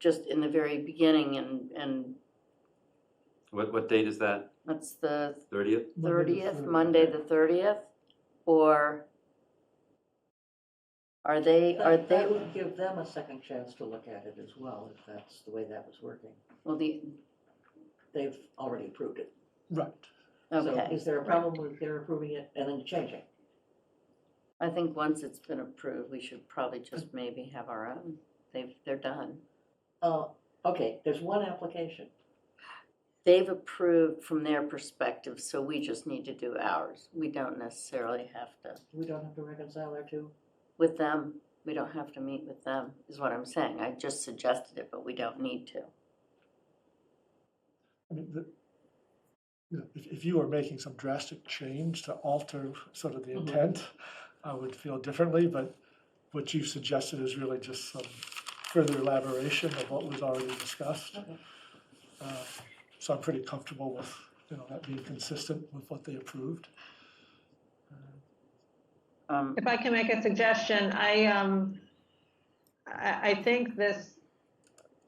just in the very beginning and, and What, what date is that? that's the Thirtieth? thirtieth, Monday the thirtieth? Or are they, That- are they, That would give them a second chance to look at it as well, if that's the way that was working. well, the, They've already approved it. Right. So okay. is there a problem with their approving it and then changing? I think once it's been approved, we should probably just maybe have our own. They've, they're done. Uh, okay, there's one application. They've approved from their perspective, so we just need to do ours. We don't necessarily have to, We don't have to reconcile our two? with them, we don't have to meet with them, is what I'm saying. I just suggested it, but we don't need to. I mean, the, you know, if, if you were making some drastic change to alter sort of the Mm-hmm. Mhm. intent, I would feel differently, but what you've suggested is really just some further elaboration of what was already discussed. Okay. Uh, So I'm pretty comfortable with, you know, that being consistent with what they approved. Um, If I can make a suggestion, I, um, I, I think this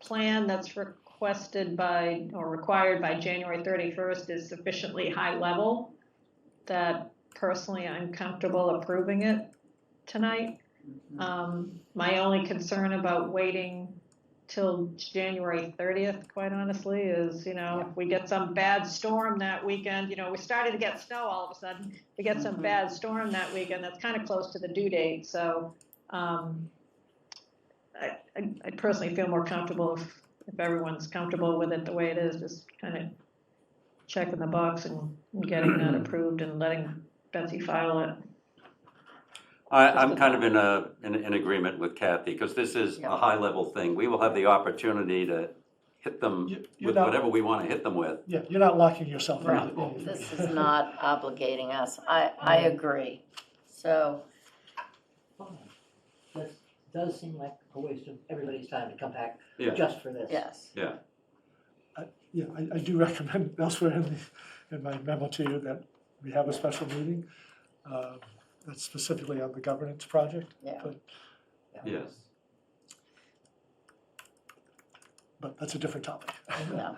plan that's requested by, or required by January thirty-first is sufficiently high level that personally I'm comfortable approving it tonight. mm-hmm. Um, my only concern about waiting till January thirtieth, quite honestly, is, you know, if we get some bad storm that weekend, you know, we started to get snow all of a sudden. We get some Mhm. bad storm that weekend, that's kind of close to the due date, so, um, I, I- I personally feel more comfortable if, if everyone's comfortable with it the way it is, just kind of checking the box and getting that approved and letting Betsy file it. I, Just I'm kind of about. in a, in, in agreement with Kathy, because this is Yeah. a high-level thing. We will have the opportunity to hit them You- you're with not- whatever we want to hit them with. Yeah, you're not locking yourself out of Right. anything. This is not obligating us. I, I agree. So, Fine. This does seem like a waste of everybody's time to come back Yeah. just for this. yes. Yeah, I, I do recommend elsewhere in the, in my memo to you that we have a special meeting, um, that's specifically on the governance project. Yeah. But, Yes. but that's a different topic. No.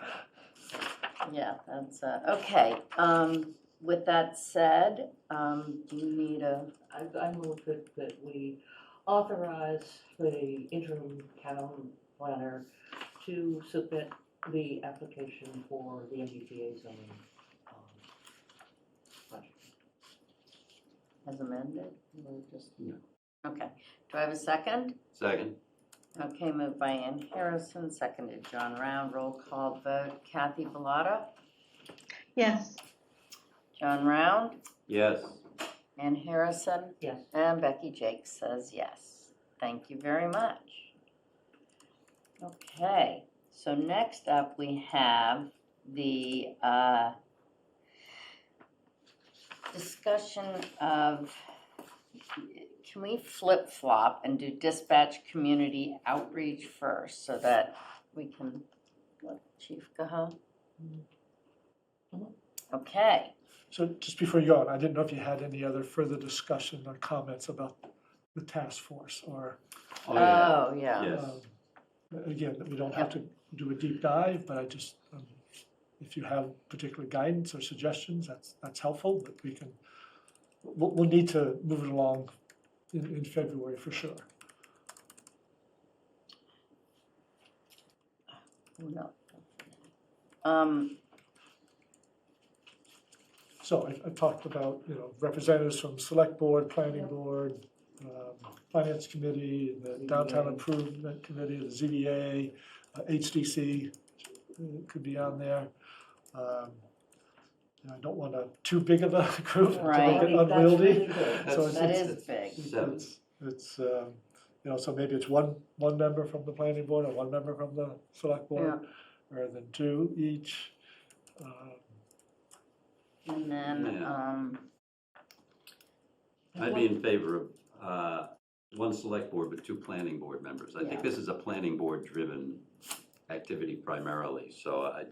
Yeah, that's, uh, okay. Um, With that said, um, do you need a, I, I move that, that we authorize the interim town planner to submit the application for the MBTA zoning. um, project. as amended? Or just- No. Okay. Do I have a second? Second? Okay, moved by Ann Harrison, seconded John Round. Roll call vote. Kathy Bellata? Yes, John Round? Yes. Ann Harrison? Yes, And Becky Jake says yes. Thank you very much. Okay, so next up we have the uh, discussion of, can we flip-flop and do dispatch community outreach first so that we can, what, Chief Gahan? Mhm. Okay. So just before you go on, I didn't know if you had any other further discussion or comments about the task force or, Oh, yeah. Oh, yeah. Yes. um, again, that we don't have to do a deep dive, but I just, um, if you have particular guidance or suggestions, that's, that's helpful, but we can, we'll, we'll need to move it along in, in February for sure. No. Um, So I, I talked about, you know, representatives from select board, planning board, um, finance committee, E the downtown ZBA. improvement committee, the ZBA, uh, HDC uh, could be on there. Um, and I don't want a too big of a group to Right. make it That's really unwieldy. good. So That's- it's- That it's- is big. Seven. It's, it's, um, you know, so maybe it's one, one member from the planning board and one member from the select board, rather than two each. Um, And then, Yeah. um, I'd be in favor of, uh, one select board with two planning board members. I Yeah. think this is a planning board-driven activity primarily, so I,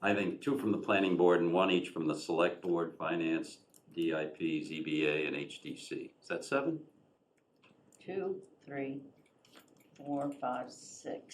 I think two from the planning board and one each from the select board, finance, DIP, ZBA, and HDC. Is that seven? two, three, four, five, six,